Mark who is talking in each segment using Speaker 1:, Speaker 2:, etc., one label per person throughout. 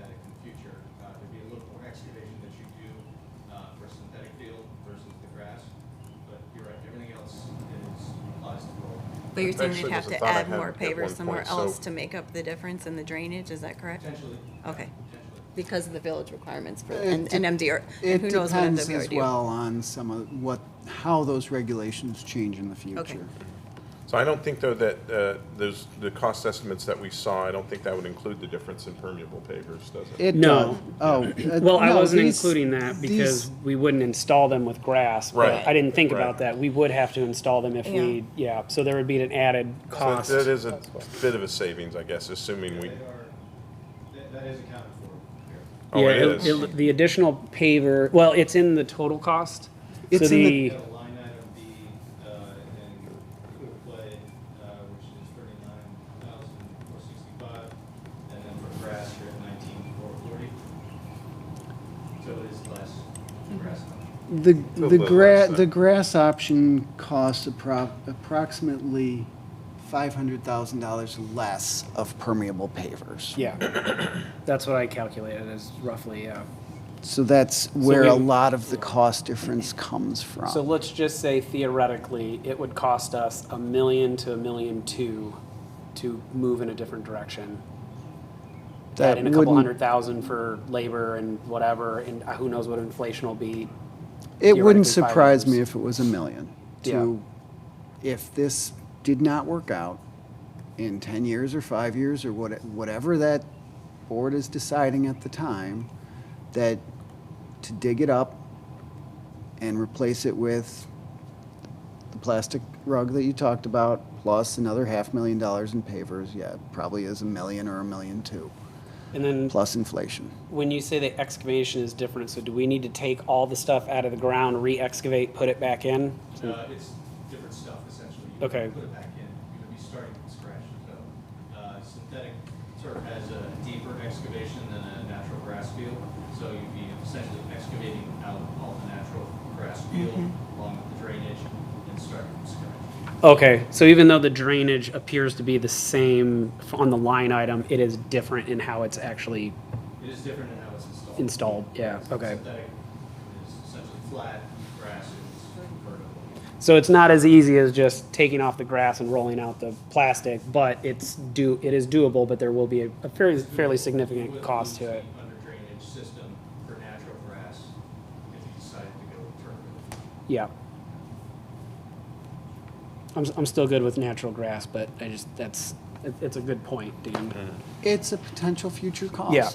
Speaker 1: Uh,
Speaker 2: But you're saying they'd
Speaker 3: Actually,
Speaker 2: have
Speaker 3: there's a
Speaker 2: to
Speaker 3: thought I
Speaker 2: add
Speaker 3: had
Speaker 2: more
Speaker 3: at
Speaker 2: pavers
Speaker 3: one
Speaker 2: somewhere
Speaker 3: point, so-
Speaker 2: else to make up the difference in the drainage, is that correct?
Speaker 1: potentially.
Speaker 2: Okay.
Speaker 1: Potentially.
Speaker 2: Because of the village requirements for,
Speaker 4: It
Speaker 2: and and MDR, and
Speaker 4: It
Speaker 2: who knows what MWRD.
Speaker 4: depends as well on some of what, how those regulations change in the future.
Speaker 3: So I don't think, though, that uh, those, the cost estimates that we saw, I don't think that would include the difference in permeable pavers, does it?
Speaker 4: It
Speaker 5: No.
Speaker 4: does. Oh. uh,
Speaker 5: Well, I
Speaker 4: no,
Speaker 5: wasn't
Speaker 4: these-
Speaker 5: including that because
Speaker 4: these-
Speaker 5: we wouldn't install them with grass. but
Speaker 3: Right.
Speaker 5: I didn't think
Speaker 3: Right.
Speaker 5: about that. We would have to install them if we, yeah, so there would be an added
Speaker 3: So
Speaker 5: cost.
Speaker 3: That is a bit of a savings, I guess, assuming we,
Speaker 1: They are, that, that is accounted for here.
Speaker 3: oh, it
Speaker 5: Yeah,
Speaker 3: is.
Speaker 5: it- The additional paver, well, it's in the total cost. So
Speaker 4: It's in
Speaker 5: the,
Speaker 4: the-
Speaker 1: Got a line item B, uh, in quick play, uh, which is thirty-nine thousand four sixty-five, and then for grass, you're at nineteen four forty. So it is less grass.
Speaker 4: The,
Speaker 3: a
Speaker 4: the
Speaker 3: little
Speaker 4: gra,
Speaker 3: less than-
Speaker 4: the grass option costs appro- approximately five hundred thousand dollars less of permeable pavers.
Speaker 5: yeah, that's what I calculated as roughly, yeah.
Speaker 4: So that's where a
Speaker 5: we-
Speaker 4: lot of the cost difference comes
Speaker 5: So
Speaker 4: from.
Speaker 5: let's just say theoretically, it would cost us a million to a million two to move in a different direction. Add in a couple
Speaker 4: wouldn't-
Speaker 5: hundred thousand for labor and whatever, and uh, who knows what inflation will be.
Speaker 4: It wouldn't
Speaker 5: theoretically five
Speaker 4: surprise me
Speaker 5: years.
Speaker 4: if it was a million. To, if this did not work out in ten years or five years or what, whatever that board is deciding at the time, that to dig it up and replace it with the plastic rug that you talked about, plus another half million dollars in pavers, yeah, it probably is a million or a million two,
Speaker 5: And then
Speaker 4: plus inflation.
Speaker 5: when you say the excavation is different, so do we need to take all the stuff out of the ground, re-excavate, put it back in?
Speaker 1: Uh, it's different stuff essentially. You
Speaker 5: Okay.
Speaker 1: Put it back in, you're gonna be starting from scratch, so, uh, synthetic turf has a deeper excavation than a natural grass field, so you'd be essentially excavating out all the natural grass field
Speaker 5: Mm-hmm.
Speaker 1: along with the drainage and starting from scratch.
Speaker 5: Okay, so even though the drainage appears to be the same f- on the line item, it is different in how it's actually
Speaker 1: It is different in how it's installed.
Speaker 5: installed, yeah, okay.
Speaker 1: Synthetic is essentially flat, grass is vertical.
Speaker 5: So it's not as easy as just taking off the grass and rolling out the plastic, but it's do, it is doable, but there will be a a fairly, fairly significant
Speaker 1: With
Speaker 5: cost
Speaker 1: the
Speaker 5: to it.
Speaker 1: Under drainage system for natural grass, if you decided to go turf it.
Speaker 5: Yeah. I'm, s- I'm still good with natural grass, but I just, that's, it- it's a good point, Dan.
Speaker 4: It's a potential future cost.
Speaker 5: Yeah.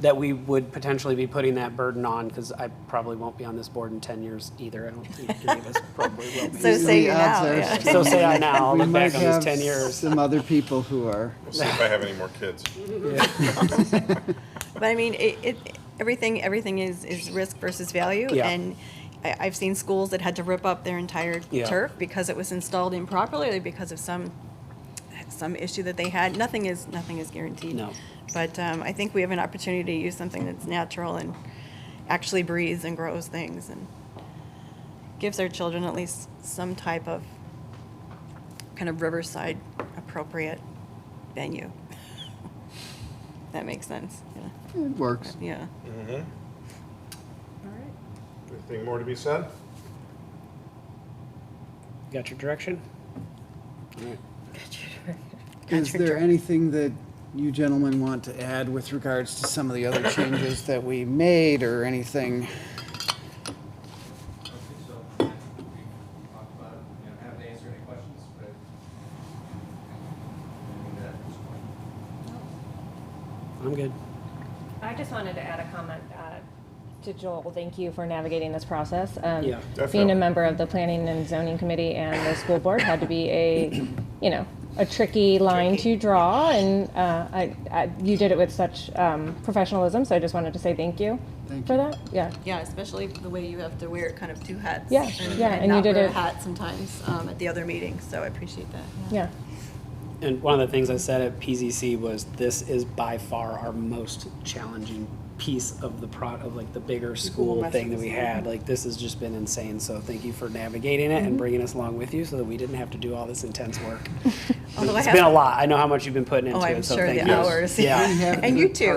Speaker 5: That we would potentially be putting that burden on, because I probably won't be on this board in ten years either. I don't think any of us probably will be.
Speaker 2: So say
Speaker 4: The
Speaker 2: you're
Speaker 4: odds
Speaker 2: now,
Speaker 4: are
Speaker 2: yeah.
Speaker 5: So say I now, I'll
Speaker 4: We
Speaker 5: look
Speaker 4: might
Speaker 5: back on this
Speaker 4: have
Speaker 5: ten years.
Speaker 4: Some other people who are,
Speaker 3: We'll see if I have any more kids.
Speaker 2: But I mean, it, it, everything, everything is, is risk versus value.
Speaker 5: Yeah.
Speaker 2: And I, I've seen schools that had to rip up their entire
Speaker 5: Yeah.
Speaker 2: turf because it was installed improperly, because of some, some issue that they had. Nothing is, nothing is guaranteed.
Speaker 5: No.
Speaker 2: But, um, I think we have an opportunity to use something that's natural and actually breathes and grows things and gives our children at least some type of kind of Riverside appropriate venue. That makes sense, yeah.
Speaker 4: it works.
Speaker 2: Yeah.
Speaker 3: Anything more to be said?
Speaker 5: Got your direction?
Speaker 4: Is there anything that you gentlemen want to add with regards to some of the other changes that we made or anything?
Speaker 1: Okay, so we talked about, it. you know, haven't answered any questions, but. I think that was fine.
Speaker 5: I'm good.
Speaker 6: I just wanted to add a comment uh, to Joel. Thank you for navigating this process. Um,
Speaker 5: Yeah.
Speaker 6: Being
Speaker 3: Definitely.
Speaker 6: a member of the Planning and Zoning Committee and the school board had to be a, you know, a tricky line to draw, and uh, I, I, you did it with such um, professionalism. So I just wanted to say thank you
Speaker 4: Thank
Speaker 6: for
Speaker 4: you.
Speaker 6: that. Yeah.
Speaker 2: Yeah, especially the way you have to wear kind of two hats.
Speaker 6: Yeah, yeah, and you
Speaker 2: not
Speaker 6: did
Speaker 2: wear a
Speaker 6: it-
Speaker 2: hat sometimes um, at the other meetings, so I appreciate that.
Speaker 6: Yeah.
Speaker 5: And one of the things I said at PZC was this is by far our most challenging piece of the pro of like the bigger school
Speaker 2: mess
Speaker 5: thing
Speaker 2: with
Speaker 5: that we had. Like this has just been insane. So thank you for navigating it
Speaker 2: Mm-hmm.
Speaker 5: and bringing us along with you, so that we didn't have to do all this intense work.
Speaker 2: Although I
Speaker 5: it's
Speaker 2: have-
Speaker 5: been a lot. I know how much you've been putting into
Speaker 2: Oh,
Speaker 5: it.
Speaker 2: I'm
Speaker 5: so
Speaker 2: sure
Speaker 5: thank
Speaker 2: the
Speaker 5: you.
Speaker 2: hours.
Speaker 5: Yeah.
Speaker 4: We have
Speaker 2: And you
Speaker 4: good
Speaker 2: too.